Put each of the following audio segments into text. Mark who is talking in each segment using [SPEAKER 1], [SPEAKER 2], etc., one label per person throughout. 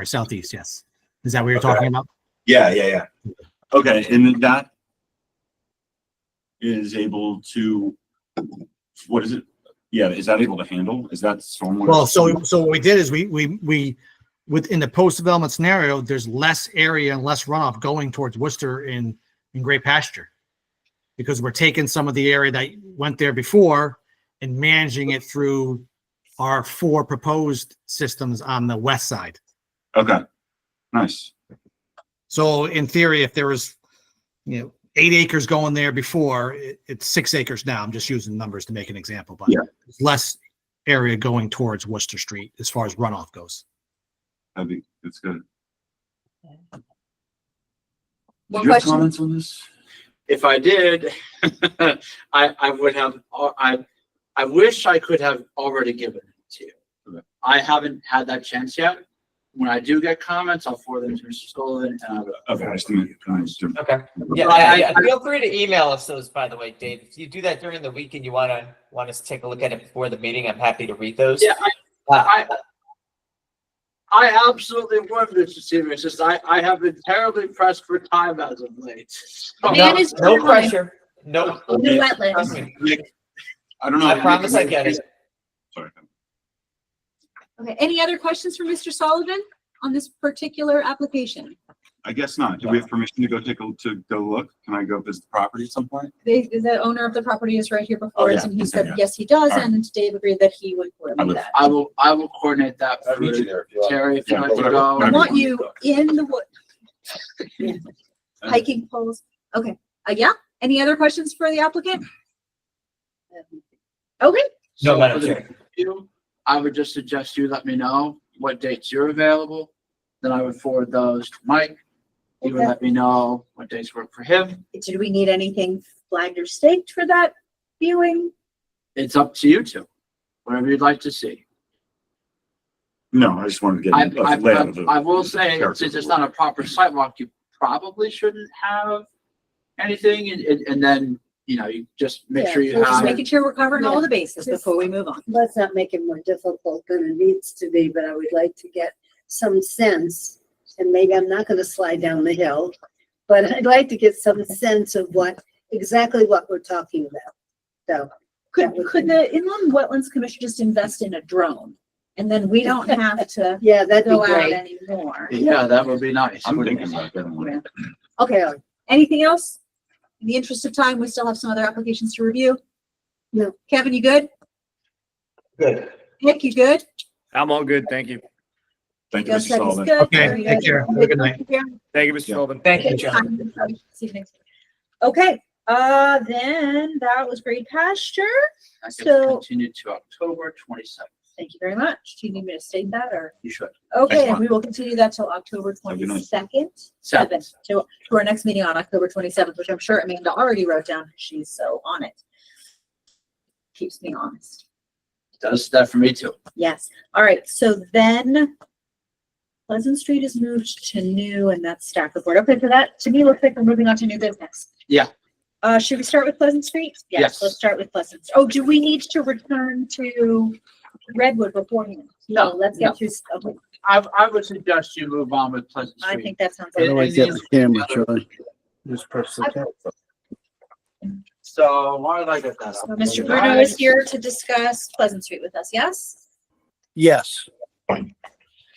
[SPEAKER 1] Or southeast, yes. Is that what you're talking about?
[SPEAKER 2] Yeah, yeah, yeah. Okay, and then that is able to, what is it? Yeah, is that able to handle? Is that stormwater?
[SPEAKER 1] Well, so, so what we did is we, we, we, within the post-development scenario, there's less area and less runoff going towards Worcester in, in Great Pasture. Because we're taking some of the area that went there before and managing it through our four proposed systems on the west side.
[SPEAKER 2] Okay, nice.
[SPEAKER 1] So in theory, if there was, you know, eight acres going there before, it, it's six acres now. I'm just using numbers to make an example, but
[SPEAKER 2] Yeah.
[SPEAKER 1] it's less area going towards Worcester Street as far as runoff goes.
[SPEAKER 2] That'd be, that's good.
[SPEAKER 3] One
[SPEAKER 2] Your
[SPEAKER 3] question,
[SPEAKER 2] comments on this?
[SPEAKER 4] If I did, I, I would have, al- I, I wish I could have already given it to you.
[SPEAKER 2] Okay.
[SPEAKER 4] I haven't had that chance yet. When I do get comments, I'll forward them to Mr. Sullivan and I will.
[SPEAKER 2] Okay, I just think- I just-
[SPEAKER 5] Okay. Yeah, I, I, feel free to email us those, by the way, Dave. If you do that during the week and you wanna, want us to take a look at it before the meeting, I'm happy to read those.
[SPEAKER 4] Yeah, I, I,
[SPEAKER 5] Uh,
[SPEAKER 4] I absolutely would, Mr. Seaver. It's just I, I have been terribly pressed for time as of late.
[SPEAKER 2] Oh,
[SPEAKER 4] So-
[SPEAKER 3] Man
[SPEAKER 5] no,
[SPEAKER 3] is
[SPEAKER 5] no
[SPEAKER 3] fine.
[SPEAKER 5] pressure, no,
[SPEAKER 3] new wetlands.
[SPEAKER 5] trust me.
[SPEAKER 2] Nick, I don't know.
[SPEAKER 5] I promise I get it.
[SPEAKER 2] Sorry.
[SPEAKER 3] Okay, any other questions for Mr. Sullivan on this particular application?
[SPEAKER 2] I guess not. Do we have permission to go take a, to go look? Can I go visit the property at some point?
[SPEAKER 3] They, the owner of the property is right here before us
[SPEAKER 2] Oh, yeah.
[SPEAKER 3] and he said,
[SPEAKER 2] Yeah.
[SPEAKER 3] yes, he does.
[SPEAKER 2] All right.
[SPEAKER 3] And Dave agreed that he would
[SPEAKER 2] I
[SPEAKER 3] coordinate
[SPEAKER 2] would-
[SPEAKER 3] that.
[SPEAKER 4] I will, I will coordinate that.
[SPEAKER 6] I'll
[SPEAKER 4] for
[SPEAKER 6] meet you there if you want.
[SPEAKER 4] Terry, if you
[SPEAKER 2] Yeah,
[SPEAKER 4] want to
[SPEAKER 2] whatever-
[SPEAKER 4] go.
[SPEAKER 3] I
[SPEAKER 2] whatever.
[SPEAKER 3] want you in the wood. Yeah. Hiking poles. Okay, uh, yeah. Any other questions for the applicant? Okay,
[SPEAKER 5] No,
[SPEAKER 4] So
[SPEAKER 5] Madam
[SPEAKER 4] for the
[SPEAKER 5] Chair.
[SPEAKER 4] you, I would just suggest you let me know what dates you're available. Then I would forward those to Mike. He would
[SPEAKER 3] Okay.
[SPEAKER 4] let me know what dates work for him.
[SPEAKER 3] did we need anything flagged or staked for that viewing?
[SPEAKER 4] It's up to you two, whatever you'd like to see.
[SPEAKER 2] No, I just wanted to
[SPEAKER 4] I,
[SPEAKER 2] get. a
[SPEAKER 4] I,
[SPEAKER 2] layout of the-
[SPEAKER 4] I I will say,
[SPEAKER 2] character
[SPEAKER 4] since
[SPEAKER 2] of
[SPEAKER 4] it's
[SPEAKER 2] the
[SPEAKER 4] not a proper sidewalk, you probably shouldn't have anything and, and, and then, you know, you just make sure
[SPEAKER 7] Yeah,
[SPEAKER 4] you
[SPEAKER 3] We're
[SPEAKER 2] Uh,
[SPEAKER 3] just
[SPEAKER 4] have.
[SPEAKER 3] making sure we're covering all
[SPEAKER 7] Yeah.
[SPEAKER 3] the bases
[SPEAKER 7] Just-
[SPEAKER 3] before we move on.
[SPEAKER 7] let's not make it more difficult than it needs to be, but I would like to get some sense. And maybe I'm not gonna slide down the hill, but I'd like to get some sense of what, exactly what we're talking about. So,
[SPEAKER 3] Could,
[SPEAKER 7] That would
[SPEAKER 3] could
[SPEAKER 7] be-
[SPEAKER 3] the inland wetlands commission just invest in a drone? And then we don't have to
[SPEAKER 7] yeah, that'd be
[SPEAKER 3] go out
[SPEAKER 7] great.
[SPEAKER 3] anymore.
[SPEAKER 4] Yeah, that would be nice.
[SPEAKER 2] I'm
[SPEAKER 4] wouldn't
[SPEAKER 2] thinking about
[SPEAKER 4] it?
[SPEAKER 2] that one.
[SPEAKER 3] Okay, anything else? In the interest of time, we still have some other applications to review.
[SPEAKER 7] No.
[SPEAKER 3] Kevin, you good?
[SPEAKER 5] Good.
[SPEAKER 3] Nick, you good?
[SPEAKER 8] I'm all good. Thank you.
[SPEAKER 2] Thank you,
[SPEAKER 3] Joe
[SPEAKER 2] Mr.
[SPEAKER 3] said he's
[SPEAKER 2] Sullivan.
[SPEAKER 3] good.
[SPEAKER 1] Okay,
[SPEAKER 3] Very
[SPEAKER 1] take care. Have a good night.
[SPEAKER 3] Yeah.
[SPEAKER 8] Thank you, Mr.
[SPEAKER 2] Yeah.
[SPEAKER 8] Sullivan.
[SPEAKER 5] Thank you, John.
[SPEAKER 3] See you next week. Okay, uh, then that was Great Pasture.
[SPEAKER 4] I guess
[SPEAKER 3] So-
[SPEAKER 4] Continue to October twenty-seventh.
[SPEAKER 3] Thank you very much. Do you need me to state that or?
[SPEAKER 4] You should.
[SPEAKER 3] Okay, and
[SPEAKER 2] Excellent.
[SPEAKER 3] we will continue that till October
[SPEAKER 2] Have a good night.
[SPEAKER 3] twenty-second.
[SPEAKER 4] Seven.
[SPEAKER 3] seventh, to, to our next meeting on October twenty-seventh, which I'm sure Amanda already wrote down. She's so on it. Keeps me honest.
[SPEAKER 4] Does that for me too.
[SPEAKER 3] Yes. All right. So then Pleasant Street is moved to new and that's staff report. Okay. So that to me looks like we're moving on to new business.
[SPEAKER 4] Yeah.
[SPEAKER 3] Uh, should we start with Pleasant Street?
[SPEAKER 4] Yes.
[SPEAKER 3] Let's start with Pleasant. Oh, do we need to return to Redwood beforehand?
[SPEAKER 4] No,
[SPEAKER 3] Let's
[SPEAKER 4] no.
[SPEAKER 3] get through, s- okay,
[SPEAKER 4] I, I would suggest you move on with Pleasant
[SPEAKER 3] I
[SPEAKER 4] Street.
[SPEAKER 3] think that sounds.
[SPEAKER 4] It-
[SPEAKER 3] like-
[SPEAKER 4] it is-
[SPEAKER 6] camera, Charlie. Just press
[SPEAKER 3] the
[SPEAKER 6] camera.
[SPEAKER 4] So why did I get that?
[SPEAKER 3] So
[SPEAKER 4] up?
[SPEAKER 3] Mr. Bruno is here to discuss Pleasant Street with us, yes?
[SPEAKER 6] Yes.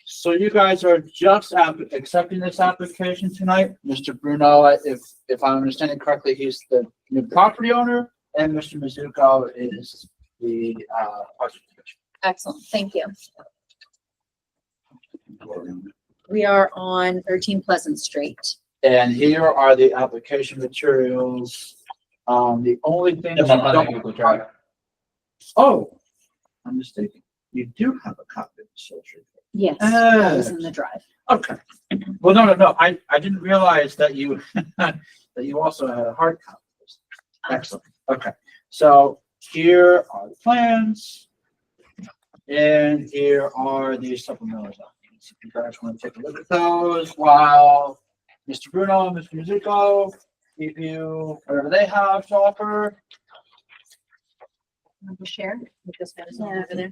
[SPEAKER 4] So you guys are just app- accepting this application tonight? Mr. Bruno, if, if I'm understanding correctly, he's the new property owner and Mr. Mizuko is the, uh, project
[SPEAKER 3] Excellent, thank you. We are on thirteen Pleasant Street.
[SPEAKER 4] And here are the application materials. Um, the only thing.
[SPEAKER 5] That's up on the Google Drive.
[SPEAKER 4] Oh, I'm mistaken. You do have a copy of the social.
[SPEAKER 3] Yes, that was
[SPEAKER 4] Ah,
[SPEAKER 3] in the drive.
[SPEAKER 4] okay. Well, no, no, no. I, I didn't realize that you, that you also had a hard copy. Excellent. Okay. So here are the plans. And here are the supplemental documents. If you guys want to take a look at those while Mr. Bruno, Mr. Musico, give you whatever they have to offer.
[SPEAKER 3] Want to Share. Put this medicine
[SPEAKER 7] Yeah.
[SPEAKER 3] over there.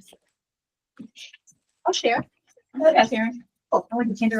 [SPEAKER 3] I'll share. Karen. Oh, I went to kindergarten